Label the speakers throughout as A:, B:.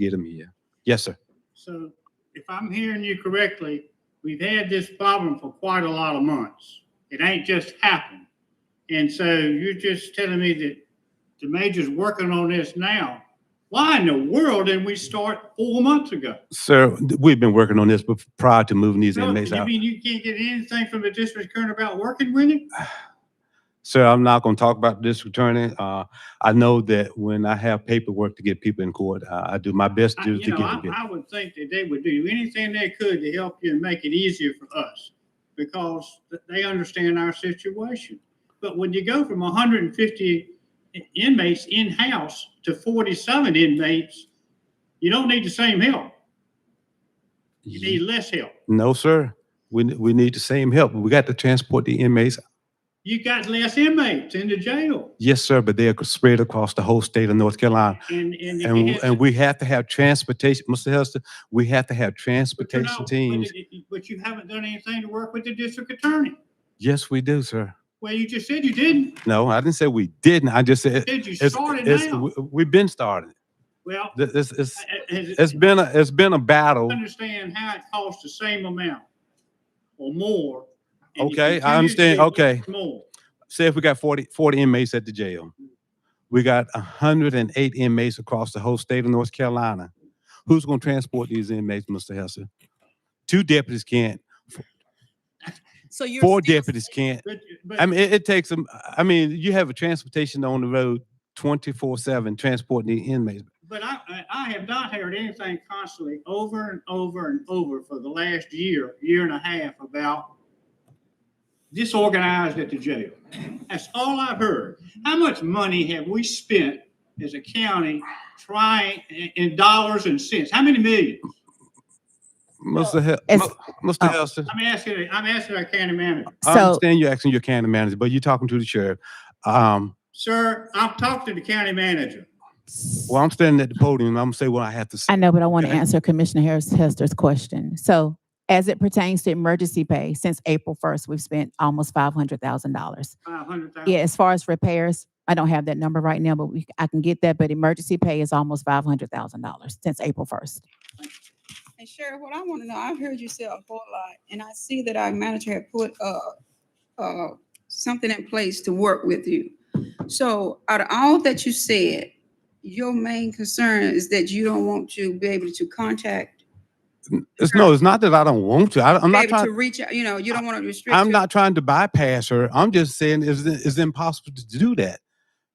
A: get them here. Yes, sir.
B: So if I'm hearing you correctly, we've had this problem for quite a lot of months. It ain't just happened. And so you're just telling me that the major's working on this now. Why in the world didn't we start four months ago?
A: Sir, th- we've been working on this bef- prior to moving these
B: No,
A: inmates
B: You
A: out.
B: mean you can't get anything from the district attorney about working with it?
A: Sir, I'm not going to talk about this attorney. Uh, I know that when I have paperwork to get people in court, uh, I do my best
B: I-
A: to,
B: You
A: to
B: know,
A: get it.
B: I,
A: done.
B: I would think that they would do anything they could to help you and make it easier for us because th- they understand our situation. But when you go from hundred and fifty inmates in-house to forty-seven inmates, you don't need the same help. You
A: Mm-hmm.
B: need less help.
A: No, sir. We, n- we need the same help. We got to transport the inmates.
B: You got less inmates in the jail
A: Yes, sir, but they are spread across the whole state of North Carolina.
B: and, and. if you
A: And,
B: had-
A: and we have to have transportation, Mr. Hester, we have to have
B: but you're not-
A: transportation
B: but
A: teams.
B: it- But you haven't done anything to work with the district attorney.
A: Yes, we do, sir.
B: Well, you just said you didn't.
A: No, I didn't say we didn't. I just said,
B: Did you
A: it's,
B: start it
A: it's-
B: now?
A: we- we've been starting.
B: Well,
A: Th- This, it's,
B: I- I-
A: it's been, a it's been a battle.
B: understand how it costs the same amount or more. and you
A: Okay, I
B: continuously
A: understand.
B: want
A: Okay.
B: More.
A: Say if we got 40 40 inmates at the jail. We got hundred and eight inmates across the whole state of North Carolina. Who's gonna transport these inmates, Mr. Hester? Two deputies can't,
C: So you're.
A: four
C: still
A: deputies can't.
B: But,
A: I
B: but
A: mean, it, it takes them, I mean, you have a transportation on the road twenty-four seven transporting the inmates.
B: but I, I- I have not heard anything constantly over and over and over for the last year, year and a half about disorganized at the jail. That's all I've heard. How much money have we spent as a county trying, in- in dollars and cents? How many millions?
A: Mr. Hel-
D: As-
A: Mu-
D: oh.
A: Mr. Hester,
B: I'm asking, I'm asking our county manager.
A: I
D: So,
A: understand you're asking your county manager, but you're talking to the sheriff. Um,
B: Sir, I've talked to the county manager.
A: well, I'm standing at the podium, I'm gonna say what I have to
D: I
A: say.
D: know, but I want to
A: Okay.
D: answer Commissioner Harris Hester's question. So as it pertains to emergency pay, since April first, we've spent almost five hundred thousand dollars.
B: Five hundred thousand.
D: Yeah, as far as repairs, I don't have that number right now, but we, I can get that, but emergency pay is almost five hundred thousand dollars since April first.
E: And Sheriff, what I want to know, I've heard you say a whole lot, and I see that our manager had put, uh, uh, something in place to work with you. So out of all that you said, your main concern is that you don't want to be able to contact,
A: It's, no, it's not that I don't want to. I, I'm
E: be
A: not
E: able
A: trying.
E: to reach out, you know, you don't want to restrict.
A: I'm
E: your-
A: not trying to bypass her. I'm just saying it's, it's impossible to do that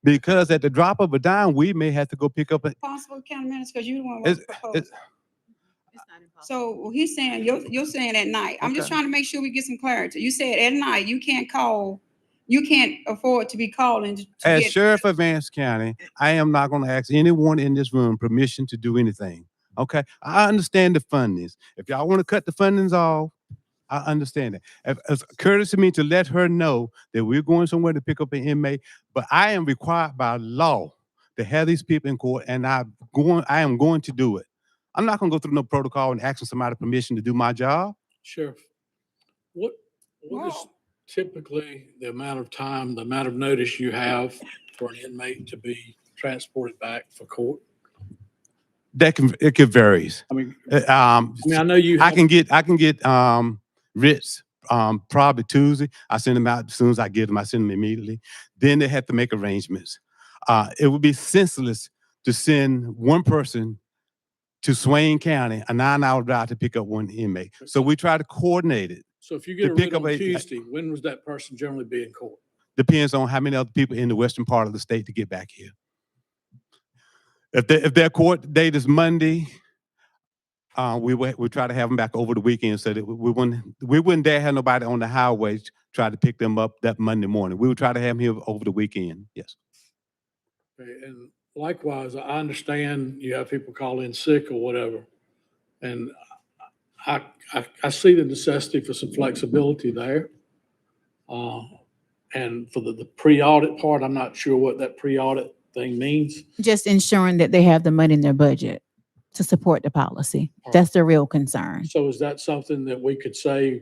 A: because at the drop of a dime, we may have to go pick up. A,
E: Possible county minutes, because you don't want to
A: It's-
E: propose. So well, he's saying, you're, you're saying at night. I'm just
A: Okay.
E: trying to make sure we get some clarity. You said at night, you can't call, you can't afford to be calling to to
A: as
E: get-
A: sheriff of Vance County, I am not going to ask anyone in this room permission to do anything. Okay, I understand the fundings. If y'all want to cut the fundings off, I understand it. If, it's courtesy to me to let her know that we're going somewhere to pick up an inmate, but I am required by law to have these people in court, and I going, I am going to do it. I'm not going to go through no protocol and asking somebody permission to do my job.
F: Sheriff, what, what is
E: Wow.
F: typically the amount of time, the amount of notice you have for an inmate to be transported back for court?
A: That can it could varies.
F: I mean,
A: Uh, Um,
F: I mean, I know you.
A: I
F: have-
A: can get I can get um writs um probably Tuesday. I send them out as soon as I get them. I send them immediately. Then they have to make arrangements. Uh, it would be senseless to send one person to Swain County, a nine-hour drive to pick up one inmate. So we try to coordinate it.
F: So if you
A: to
F: get a
A: pick
F: writ
A: up
F: on
A: a-
F: Tuesday, when was that person generally be in court?
A: Depends on how many other people in the western part of the state to get back here. If they, if their court date is Monday, uh, we would, we try to have them back over the weekend so that we- we wouldn't, we wouldn't dare have nobody on the highway t- try to pick them up that Monday morning. We would try to have them here over the weekend, yes.
F: Okay, And likewise, I understand you have people call in sick or whatever. And I, I, I see the necessity for some flexibility there. Uh, And for the, the pre-audit part, I'm not sure what that pre-audit thing means.
D: Just ensuring that they have the money in their budget to support the policy.
F: Alright.
D: That's the real concern.
F: So is that something that we could say,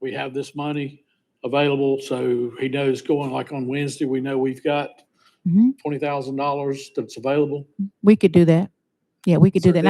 F: we have this money available, so he knows going, like on Wednesday, we know we've got
D: Mhm.
F: twenty thousand dollars that's available?
D: We could do that. Yeah, we could do
G: So
D: that. And